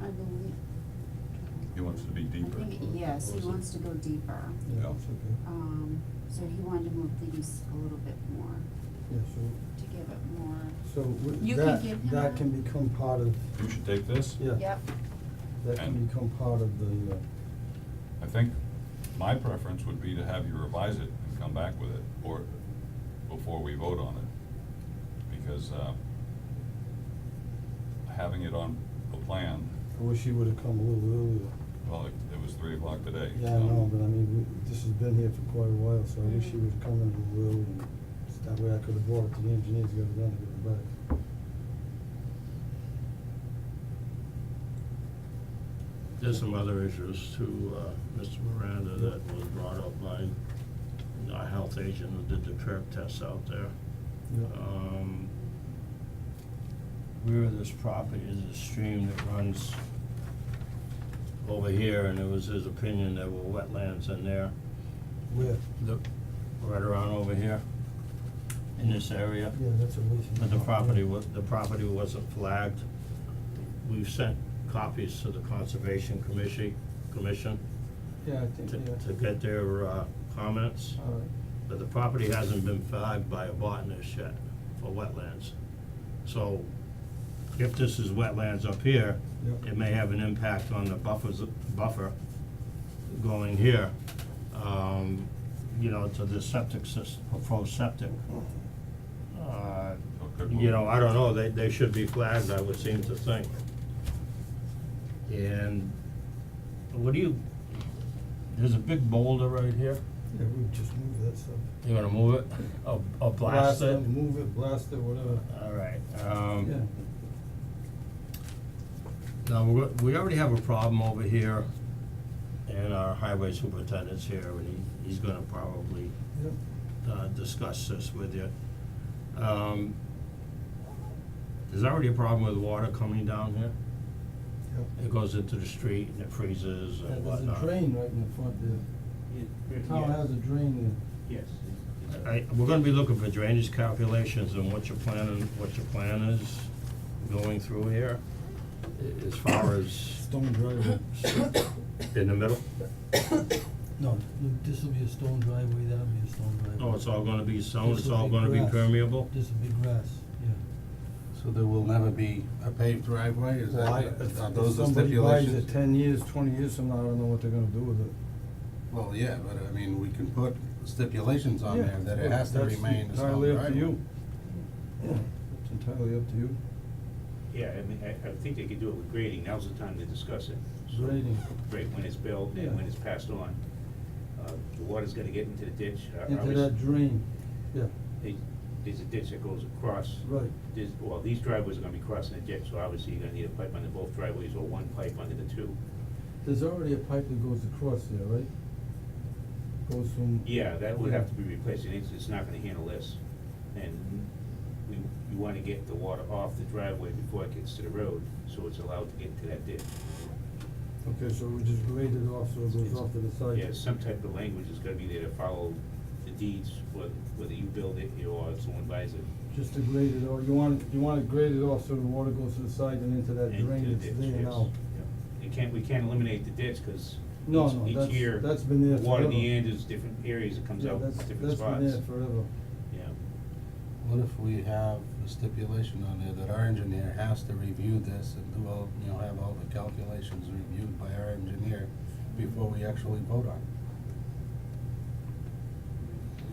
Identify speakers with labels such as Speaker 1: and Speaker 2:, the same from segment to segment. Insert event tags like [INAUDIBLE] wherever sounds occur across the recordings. Speaker 1: I believe.
Speaker 2: He wants to be deeper.
Speaker 1: I think, yes, he
Speaker 3: Was it-
Speaker 1: wants to go deeper.
Speaker 3: Yeah,
Speaker 2: Yeah.
Speaker 3: it's okay.
Speaker 1: Um, so he wanted to move these a little bit more,
Speaker 3: Yeah,
Speaker 1: to give it more,
Speaker 3: so, so
Speaker 1: You
Speaker 3: w-
Speaker 1: can
Speaker 3: that,
Speaker 1: give him
Speaker 3: that
Speaker 1: a-
Speaker 3: can become part of,
Speaker 2: You should take this.
Speaker 3: yeah.
Speaker 1: yep,
Speaker 3: That can
Speaker 2: And-
Speaker 3: become part of the, uh,
Speaker 2: I think my preference would be to have you revise it and come back with it, or before we vote on it. Because, uh, having it on the plan,
Speaker 3: I wish he would've come a little earlier.
Speaker 2: well, it- it was three o'clock today, so.
Speaker 3: Yeah, I know, but I mean, we, this has been here for quite a while, so I wish he
Speaker 1: Mhm.
Speaker 3: would've come in a little earlier. So That way I could've brought it to the engineers, got it done, and got it back.
Speaker 4: There's some other issues too, uh, Mr. Miranda, that was brought up by our health agent who did the curb tests out there.
Speaker 3: Yeah,
Speaker 4: Um, rear of this property is a stream that runs over here, and it was his opinion there were wetlands in there,
Speaker 3: where,
Speaker 4: the, right around over here, in this area.
Speaker 3: yeah, that's away from.
Speaker 4: But
Speaker 3: lot,
Speaker 4: the
Speaker 3: yeah.
Speaker 4: property wa- the property wasn't flagged. We've sent copies to the Conservation Commission, Commission
Speaker 3: Yeah, I think,
Speaker 4: to, to
Speaker 3: yeah.
Speaker 4: get their, uh, comments.
Speaker 3: All right,
Speaker 4: But the property hasn't been flagged by a botanist yet for wetlands. So if this is wetlands up here,
Speaker 3: Yep.
Speaker 4: it may have an impact on the buffers, buffer going here, um, you know, to the septic system, proposed septic. Uh,
Speaker 2: So it could
Speaker 4: you
Speaker 2: move.
Speaker 4: know, I don't know, they, they should be flagged, I would seem to think. And what do you, there's a big boulder right here,
Speaker 3: yeah, we just move that stuff.
Speaker 4: you wanna move it, or, or blast it?
Speaker 3: Move it, blast it, whatever.
Speaker 4: Alright, um.
Speaker 3: Yeah,
Speaker 4: Now, we're, go- we already have a problem over here, and our highway superintendent's here, and he, he's gonna probably,
Speaker 3: yeah.
Speaker 4: uh, discuss this with you. Um, there's already a problem with water coming down here.
Speaker 3: Yeah.
Speaker 4: It goes into the street and it freezes
Speaker 3: Yeah,
Speaker 4: and
Speaker 3: There's
Speaker 4: whatnot.
Speaker 3: a drain right in the front there. The town has Oh, a drain
Speaker 5: Yes.
Speaker 4: I, we're gonna be looking for drainage calculations and what your plan, and what your plan is going through here, a- as far
Speaker 3: there,
Speaker 4: as
Speaker 3: stone driveway.
Speaker 4: in the middle.
Speaker 6: No, this will be a stone driveway, that'll be a stone driveway.
Speaker 4: Oh, it's all gonna be sown, it's
Speaker 6: This'll
Speaker 4: all
Speaker 6: be
Speaker 4: gonna be
Speaker 6: grass.
Speaker 4: permeable?
Speaker 6: This will be grass, yeah.
Speaker 7: So there will never be a paved driveway, is that,
Speaker 3: Why,
Speaker 7: are
Speaker 3: if, if
Speaker 7: those the
Speaker 3: somebody buys it
Speaker 7: stipulations?
Speaker 3: ten years, twenty years from now, I don't know what they're gonna do with it.
Speaker 7: Well, yeah, but I mean, we can put stipulations on
Speaker 3: Yeah,
Speaker 7: there that it
Speaker 3: but
Speaker 7: has to
Speaker 3: that's
Speaker 7: remain a stone
Speaker 3: entirely up to
Speaker 7: driveway.
Speaker 3: you. Yeah, it's entirely up to you,
Speaker 5: Yeah, I mean, I, I think they could do it with grading, now's the time to discuss it. So,
Speaker 3: grading,
Speaker 5: Right, when it's built
Speaker 3: Yeah.
Speaker 5: and when it's passed on. Uh, the water's gonna get into the ditch. I- I
Speaker 3: into
Speaker 5: was-
Speaker 3: that drain, yeah,
Speaker 5: they- There's a ditch that goes across,
Speaker 3: right,
Speaker 5: there's, well, these driveways are gonna be crossing the ditch, so obviously you're gonna need a pipe under both driveways or one pipe under the two.
Speaker 3: there's already a pipe that goes across there, right? Goes from.
Speaker 5: Yeah, that would have
Speaker 3: Yeah.
Speaker 5: to be replaced, and it's, it's not gonna handle this. And we, you wanna get the water off the driveway before it gets to the road, so it's allowed to get into that ditch.
Speaker 3: Okay, so we just grade it off, so it goes
Speaker 5: It's-
Speaker 3: off to the side.
Speaker 5: Yeah, some type of language is gonna be there to follow the deeds, whether, whether you build it or someone buys it.
Speaker 3: Just to grade it off, you want, you want it graded off so the water goes to the side and into that
Speaker 5: into
Speaker 3: drain
Speaker 5: the
Speaker 3: that's
Speaker 5: ditch,
Speaker 3: there
Speaker 5: yes.
Speaker 3: now.
Speaker 5: Yeah. You can't, we can't eliminate the ditch, cause
Speaker 3: No,
Speaker 5: each-
Speaker 3: no,
Speaker 5: each
Speaker 3: that's-
Speaker 5: year,
Speaker 3: that's been there
Speaker 5: Water in the
Speaker 3: forever.
Speaker 5: end is different areas, it comes
Speaker 3: Yeah,
Speaker 5: out
Speaker 3: that's,
Speaker 5: different
Speaker 3: that's
Speaker 5: spots.
Speaker 3: been there forever.
Speaker 5: Yeah.
Speaker 7: What if we have a stipulation on there that our engineer has to review this and do all, you know, have all the calculations reviewed by our engineer before we actually vote on it?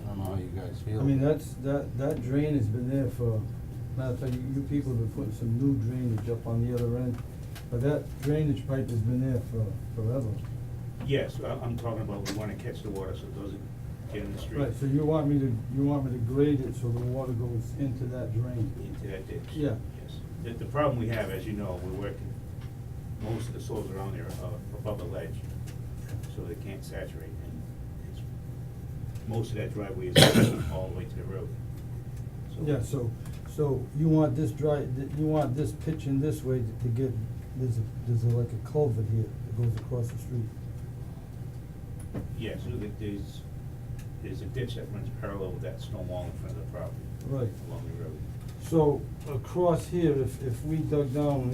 Speaker 7: I don't know how you guys feel.
Speaker 3: I mean, that's, that, that drain has been there for, matter of fact, you, you people have been putting some new drainage up on the other end. But that drainage pipe has been there for, forever.
Speaker 5: Yes, I, I'm talking about, we wanna catch the water, so it doesn't get in the street.
Speaker 3: Right, so you want me to, you want me to grade it so the water goes into that drain?
Speaker 5: into that ditch.
Speaker 3: Yeah.
Speaker 5: Yes. The, the problem we have, as you know, we're working, most of the soils around there are above the ledge, so they can't saturate, and it's, most of that driveway is [COUGHS] all the way to the road.
Speaker 3: Yeah, so, so you want this dry, th- you want this pitch in this way to get, there's a, there's a- like a culvert here that goes across the street.
Speaker 5: Yeah, so that there's, there's a ditch that runs parallel with that stone wall in front of the property.
Speaker 3: Right.
Speaker 5: Along the road.
Speaker 3: So across here, if, if we dug down